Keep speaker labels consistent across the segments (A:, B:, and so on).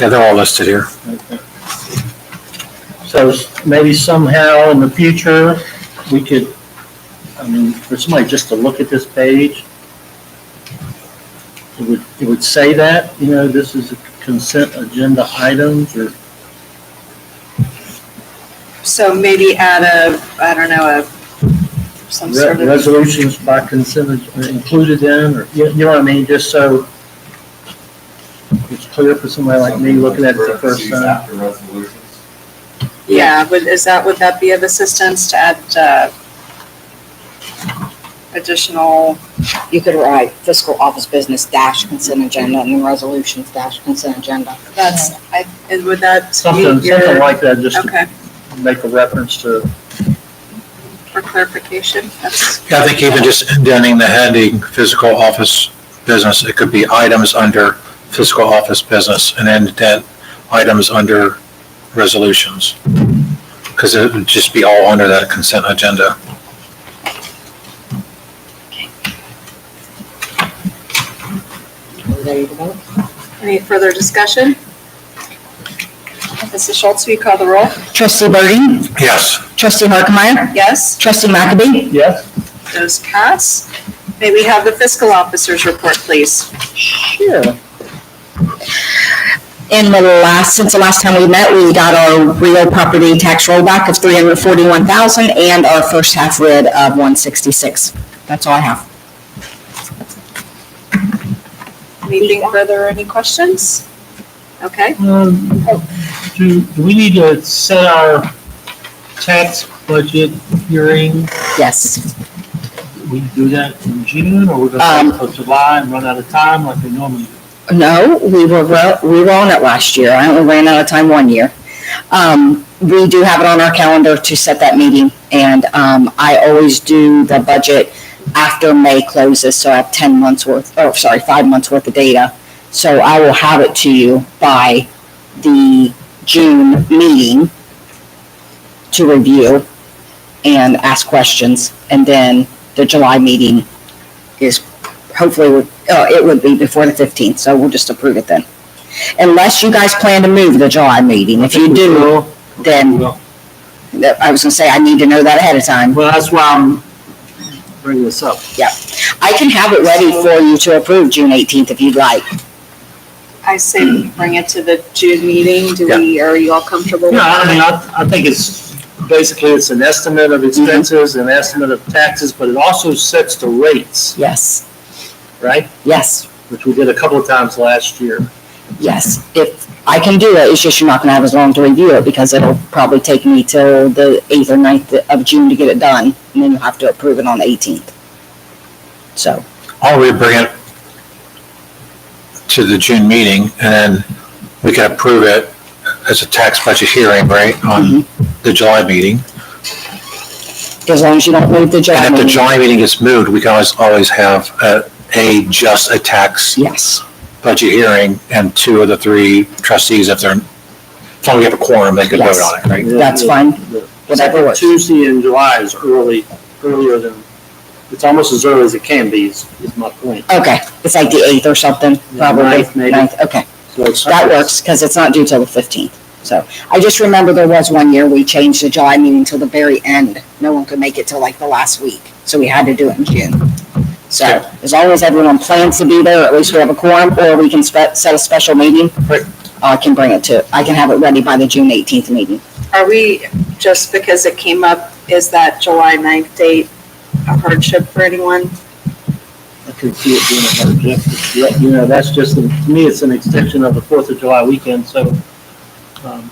A: Yeah, they're all listed here.
B: So s- maybe somehow in the future, we could, I mean, for somebody just to look at this page, it would, it would say that, you know, this is a consent agenda items or
C: So maybe add a, I don't know, a, some
B: re-
C: sort of,
B: resolutions by consent ag- are included in, or, you you know what I mean, just so it's clear for somebody like me looking at it the first time.
D: After resolutions.
C: yeah, would, is that, would that be of assistance to add, uh, additional,
E: You could write fiscal office business dash consent agenda and then resolutions dash consent agenda.
C: that's, I, and would that
B: Something,
C: meet
B: something
C: your,
B: like that, just
C: okay,
B: to make a reference to,
C: for clarification, that's,
A: Yeah, I think even just indenting the heading, physical office business, it could be items under physical office business and then indent items under resolutions. Because it would just be all under that consent agenda.
E: There you go.
C: any further discussion? Mrs. Schultz, will you call the roll?
F: Trustee Burden?
A: Yes.
F: Trustee Harkemaier?
C: Yes,
F: Trustee McAbey?
B: yes?
C: those pass. May we have the fiscal officer's report, please?
B: Sure.
F: In the last, since the last time we met, we got our real property tax rollback of 341,000 and our first half rid of 166. That's all I have.
C: Anything further, any questions? Okay,
B: Um, Do, do we need to set our tax budget hearing?
F: Yes.
B: We do that in June, or we're gonna wait till July and run out of time like we normally do?
F: No, we were, well- we were on it last year. I only ran out of time one year. Um, We do have it on our calendar to set that meeting, and um, I always do the budget after May closes, so I have 10 months worth, oh, sorry, five months worth of data. So I will have it to you by the June meeting to review and ask questions, and then the July meeting is hopefully, uh, it would be before the 15th, so we'll just approve it then. Unless you guys plan to move the July meeting. If you do, then,
B: Well,
F: that- I was gonna say, I need to know that ahead of time.
B: well, that's why I'm bringing this up.
F: I can have it ready for you to approve June 18th if you'd like.
C: I say bring it to the June meeting. Do we, are you all comfortable? with
B: Yeah, I mean,
C: that?
B: I, I think it's, basically, it's an estimate of expenses, an estimate of taxes, but it also sets the rates,
F: Yes,
B: right?
F: yes,
B: Which we did a couple of times last year.
F: yes. If, I can do it, it's just you're not gonna have as long to review it because it'll probably take me till the 8th or 9th of June to get it done. And then you'll have to approve it on the 18th. So,
A: Or we bring it to the June meeting and then we can approve it as a tax budget hearing, right, on the July meeting.
F: as long as you don't move the July
A: And if the
F: meeting.
A: July meeting gets moved, we can always, always have a, a, just a tax
F: Yes,
A: budget hearing and two of the three trustees, if they're, as long as we have a quorum, they could vote on it, right?
F: That's fine. whatever works.
B: Tuesday in July is early, earlier than, it's almost as early as it can be, is, is my point.
F: Okay, it's like the 8th or something, probably.
B: ninth, maybe.
F: Ninth, Okay.
B: So it's-
F: That works, because it's not due till the fifteenth. So I just remember there was one year we changed the July meeting till the very end. No one could make it till like the last week, so we had to do it in June. So
A: Yeah.
F: as long as everyone plans to be there, at least we have a quorum, or we can spe- set a special meeting. uh,
A: Right.
F: I can bring it to, I can have it ready by the June eighteenth meeting.
C: Are we, just because it came up, is that July 9th date a hardship for anyone?
B: I can see it being a hardship. Yeah, You know, that's just, to me, it's an extension of the Fourth of July weekend, so, um,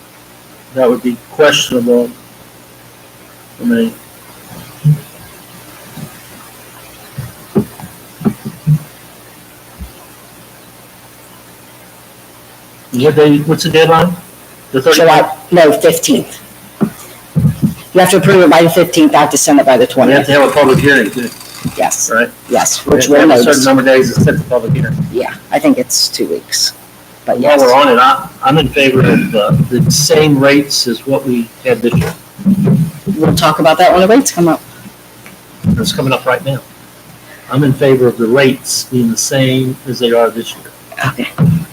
B: that would be questionable. I mean, what day, what's the deadline? The 30th?
F: July, no, fifteenth. You have to approve it by the fifteenth, I have to send it by the
B: We have
F: twentieth,
B: to have a public hearing, too,
F: yes,
B: right?
F: yes, which
B: We
F: will
B: have a certain
F: notice.
B: number of days to set the public hearing.
F: Yeah, I think it's two weeks, but
B: While
F: yes.
B: we're on it, I, I'm in favor of uh, the same rates as what we had this year.
F: We'll talk about that when the rates come up.
B: It's coming up right now. I'm in favor of the rates being the same as they are this year.
F: Okay.